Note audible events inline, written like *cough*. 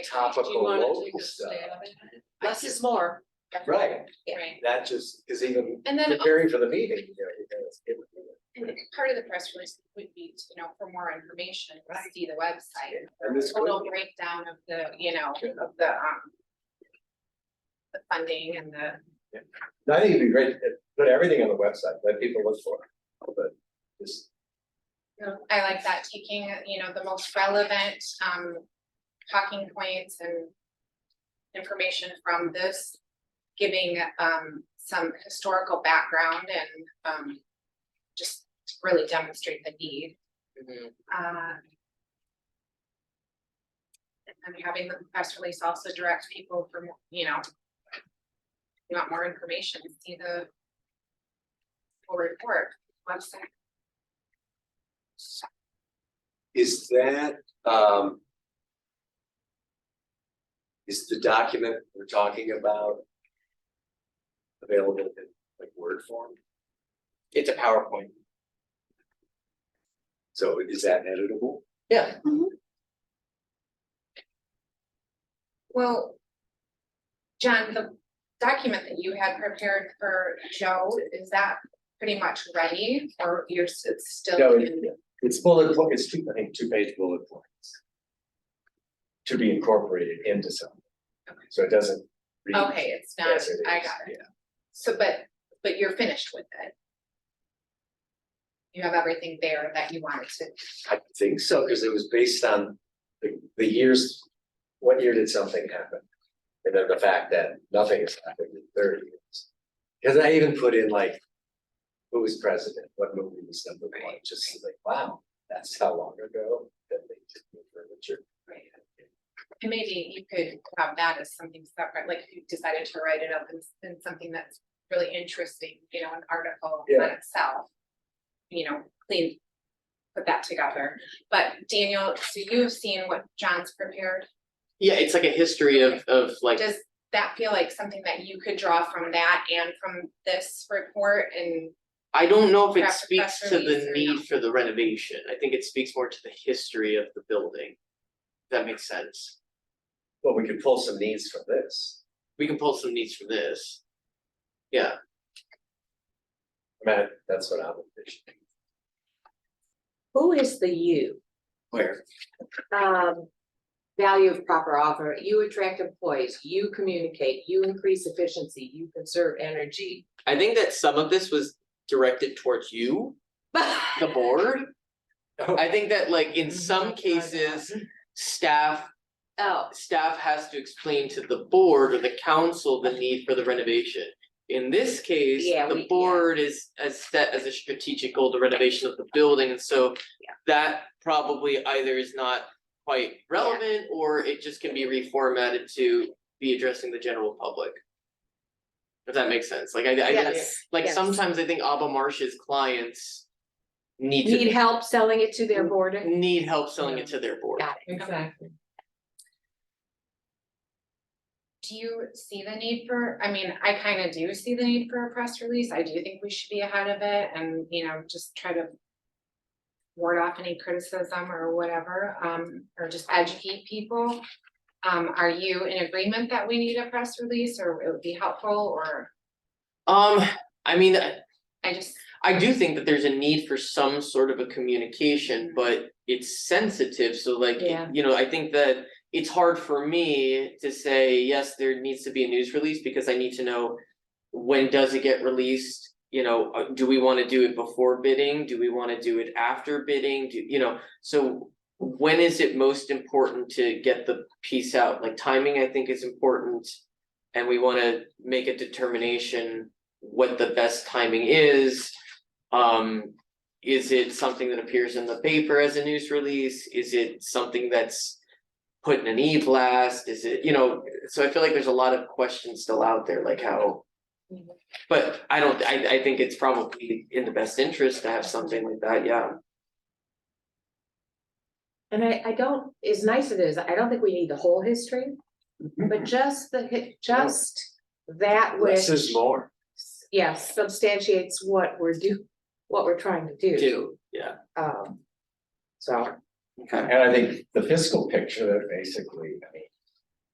topical Do you wanna local take a stuff. stab at it? I Less is more, Right, Yeah. right? that just is even And oh. then preparing for the meeting, you know, you gotta skip it. And part of the press release would be, to, you know, for more information, Right. see the website. And this the Oh, Total could- breakdown of the, you know, Sure. of the, um. The funding and the, I think it'd be great to put everything on the website, let people look for it, but just I like that, taking, you know, the most relevant, um, talking points and. Information from this, giving, um, some historical background and, um. Just really demonstrate the need. Mm-hmm. Uh, And then having the press release also direct people from, you know. if You want more information, see the. Full report website. Is that, um. Is the document we're talking about? Available in like Word form, It's a PowerPoint. so is that editable? Yeah. Well. John, the document that you had prepared for Joe, is that pretty much ready or you're, s- it's still? No, it- in- It's bullet, po- it's two, I think, two page bullet points. To be incorporated into something. So it doesn't. read Okay, it's not, as I is, got it. Yeah, So, but, but you're finished with it. You have everything there that you wanted to, I think so, because it was based on the, the years, what year did something happen? and then the fact that nothing has happened in thirty years. Because I even put in like, who was president, what movie was number one, Right, just like, wow, that's how long ago that they did the furniture. and maybe you could have that as something separate, like if you decided to write it up in, in something that's really interesting, you know, an article on Yeah. itself. You know, clean, put that together, but Daniel, so you've seen what John's prepared, Yeah, it's like a history of of like, does that feel like something that you could draw from that and from this report and? I don't know if it Perhaps a speaks press to release the or no. need for the renovation. I think it speaks more to the history of the building. If That makes sense. Well, we could pull some needs from this. We can pull some needs from this. Yeah, Matt, that's what I'm envisioning. Who is the you? Where? Um, value of proper offer, you attract employees, you communicate, you increase efficiency, you conserve energy. I think that some of this was directed *laughs* towards you, the board. I think that like in some cases, staff Oh, staff has to explain to the board or the council the need for the renovation. In this case, Yeah, we- the yeah. board is as set as a strategic goal, the renovation of the building, and so Yeah. that probably either is not quite relevant, or it just can be reformatted to be addressing the general public. If that makes sense, like I I- yes. like yes. sometimes I think Abba Marsh's clients need to Need help selling it to Mm-hmm. their board? need help selling it to their board. Got it. Exactly. Do you see the need for, I mean, I kind of do see the need for a press release. I do think we should be ahead of it and, you know, just try to ward off any criticism or whatever, um, or just educate people. Um, are you in agreement that we need a press release or it would be helpful or Um, I mean, I just, I do think that there's a need for some sort of a communication, but it's sensitive, so like, Yeah. you know, I think that. It's hard for me to say, yes, there needs to be a news release, because I need to know. When does it get released, you know, uh, do we wanna do it before bidding, do we wanna do it after bidding, do, you know, so. When is it most important to get the piece out, like timing, I think is important. And we wanna make a determination what the best timing is. Um, is it something that appears in the paper as a news release? Is it something that's put in an e-blast? Is it, you know, so I feel like there's a lot of questions still out there, like how. Mhm. But I don't, I I think it's probably in the best interest to have something like that, yeah. And I, I don't, as nice as it is, I don't think we need the whole history, Mm-hmm. but just the, hi- just that which, Less is more. yes, substantiates what we're do, what we're trying to do. Do, yeah, Um, so. okay. And I think the fiscal picture that basically, I mean,